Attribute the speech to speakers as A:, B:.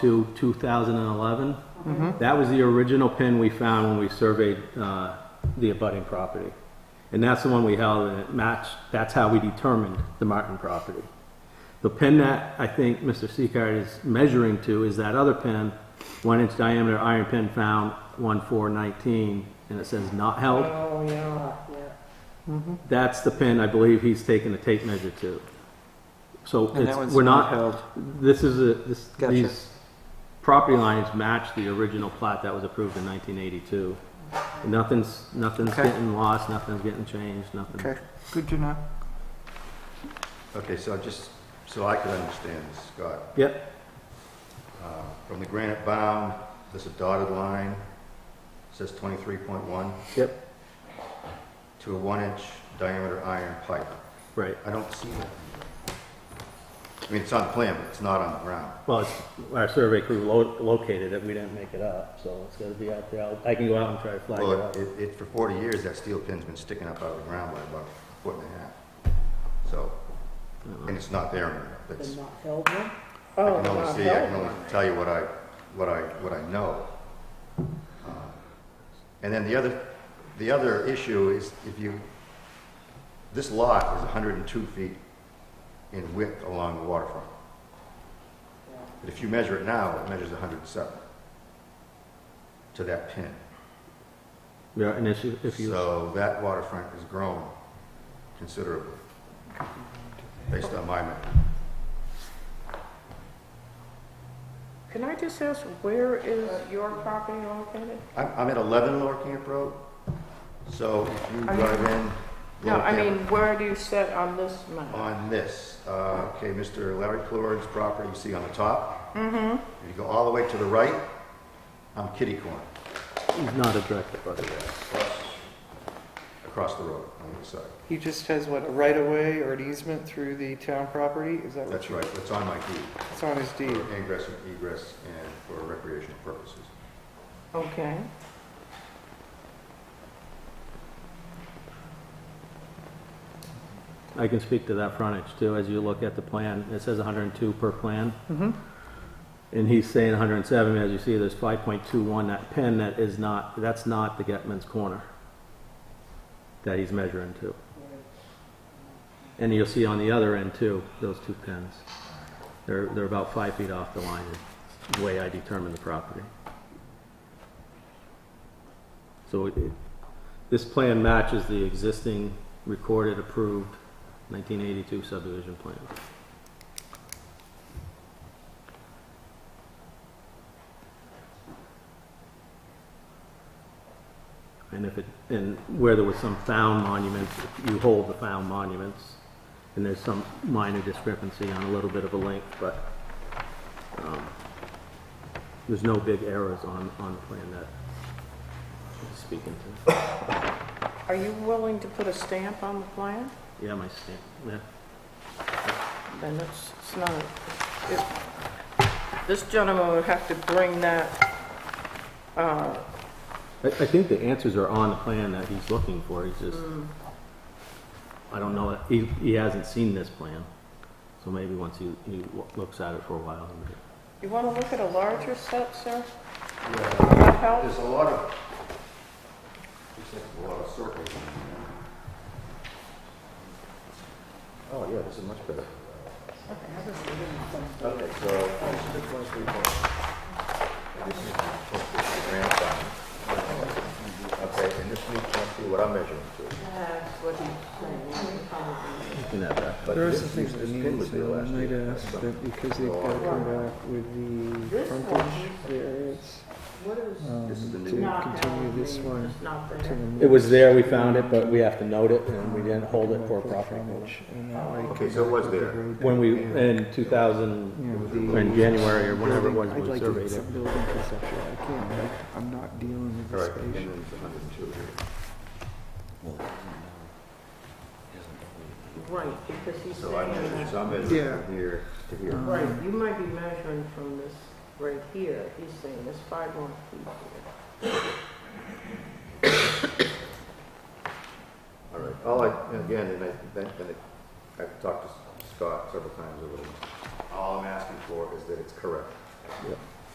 A: to 2011.
B: Mm-hmm.
A: That was the original pin we found when we surveyed uh, the abutting property. And that's the one we held, and it matched, that's how we determined the Martin property. The pin that I think Mr. Seacard is measuring to is that other pin, one inch diameter iron pin found, 1419, and it says not held.
C: Oh, yeah, yeah.
A: That's the pin I believe he's taking the tape measure to. So
B: And that
A: it's,
B: one's
A: we're
B: not
A: not,
B: held.
A: this is a, this,
B: Gotcha.
A: these property lines match the original plat that was approved in nineteen eighty-two. Nothing's, nothing's
B: Okay.
A: getting lost, nothing's getting changed, nothing.
B: Okay, good to know.
D: Okay, so just, so I could understand this, Scott.
A: Yep,
D: Uh, From the granite bound, there's a dotted line, says 23.1,
A: yep,
D: to a one-inch diameter iron pipe.
A: right.
D: I don't see that. I mean, it's on the plan, but it's not on the ground.
A: Well, it's, our survey crew lo- located it, we didn't make it up, so it's gonna be out there. I'll- I can go out and try to flag it
D: Well,
A: up.
D: it, it, for 40 years, that steel pin's been sticking up out of the ground by about a foot and a half. So, and it's not there anymore. That's,
C: The
D: I
C: not held Oh, one?
B: Oh,
D: can only see, I can only tell you what I, what I, what I know. Uh, And then the other, the other issue is if you, this lot is 102 feet in width along the waterfront. But if you measure it now, it measures 107 to that pin.
A: Yeah, and if you, if you,
D: So that waterfront has grown considerably, based on my map.
C: Can I just ask, where is your property located?
D: I'm, I'm at 11 Lower Camp Road, so if you
C: I mean-
D: drive in.
C: No,
D: Lower
C: I
D: Camp-
C: mean, where do you sit on this map?
D: On this, uh, okay, Mr. Larry Clord's property, you see on the top? Mm-hmm. If you go all the way to the right, I'm kitty corner,
A: he's not a director, but
D: across the road on the other side.
B: He just has what, a right of way or an easement through the town property? Is that what
D: That's
B: you,
D: right, that's on my deed,
B: it's on his deed?
D: for ingress and egress and for recreational purposes.
C: Okay.
A: I can speak to that frontage too, as you look at the plan, it says hundred and two per plan. And he's saying hundred and seven, as you see, there's five point two one, that pin that is not, that's not the Getman's corner that he's measuring to. And you'll see on the other end too, those two pins. They're, they're about five feet off the line, is the way I determine the property. So it, this plan matches the existing recorded, approved 1982 subdivision plan. And if it, and where there was some found monuments, you hold the found monuments, and there's some minor discrepancy on a little bit of a length, but um, there's no big errors on, on the plan that I'm speaking to.
C: Are you willing to put a stamp on the plan?
A: Yeah, my stamp, yeah.
C: Then it's, it's not, it, this gentleman would have to bring that, uh,
A: I, I think the answers are on the plan that he's looking for, he's just, I don't know, he, he hasn't seen this plan. So maybe once he, he w- looks at it for a while. he may-
C: you want to look at a larger set, sir?
D: Yeah.
C: Would that help?
D: There's a lot of, looks like a lot of circles. in there. Oh, yeah, this is much better. Okay, so, this is one, three, four. This is supposed to be the grand final. Okay, and this needs to be what I'm measuring to.
A: You can have that.
D: But
B: There are
D: this-
B: some things
D: this
B: that
D: pin
B: need
D: was
B: to,
D: there
B: I
D: last
B: might
D: year.
B: ask
D: That's
B: that because they've
D: So
B: got to
D: I-
B: come back with the
C: This
B: frontage
C: one-
B: variance
C: What is?
B: um,
D: This is the
B: to
D: new one.
B: continue this one
C: Not
B: to the.
C: there.
A: It
B: next
A: was there, we found it, but we have to note it, and we didn't hold it for a property
B: frontage,
A: frontage.
B: and that way
D: Oh, Okay, so it was there.
A: When we, in two
B: You
A: thousand,
B: know, the.
A: in January or whenever it was,
B: I'd
A: we
B: like to get
A: surveyed it.
B: some building conceptual, I can't, like, I'm not dealing with
D: All
B: this
D: right, and
B: patient.
D: then it's 102 here.
C: Right, because he's
D: So I
C: saying
D: measured,
C: that-
D: so I measured
B: Yeah.
D: from here to here.
C: Right, you might be measuring from this right here, he's saying it's five more feet here.
D: All right, all I, and again, and I, then, then it- I've talked to Scott several times over the, all I'm asking for is that it's correct.
A: Yep.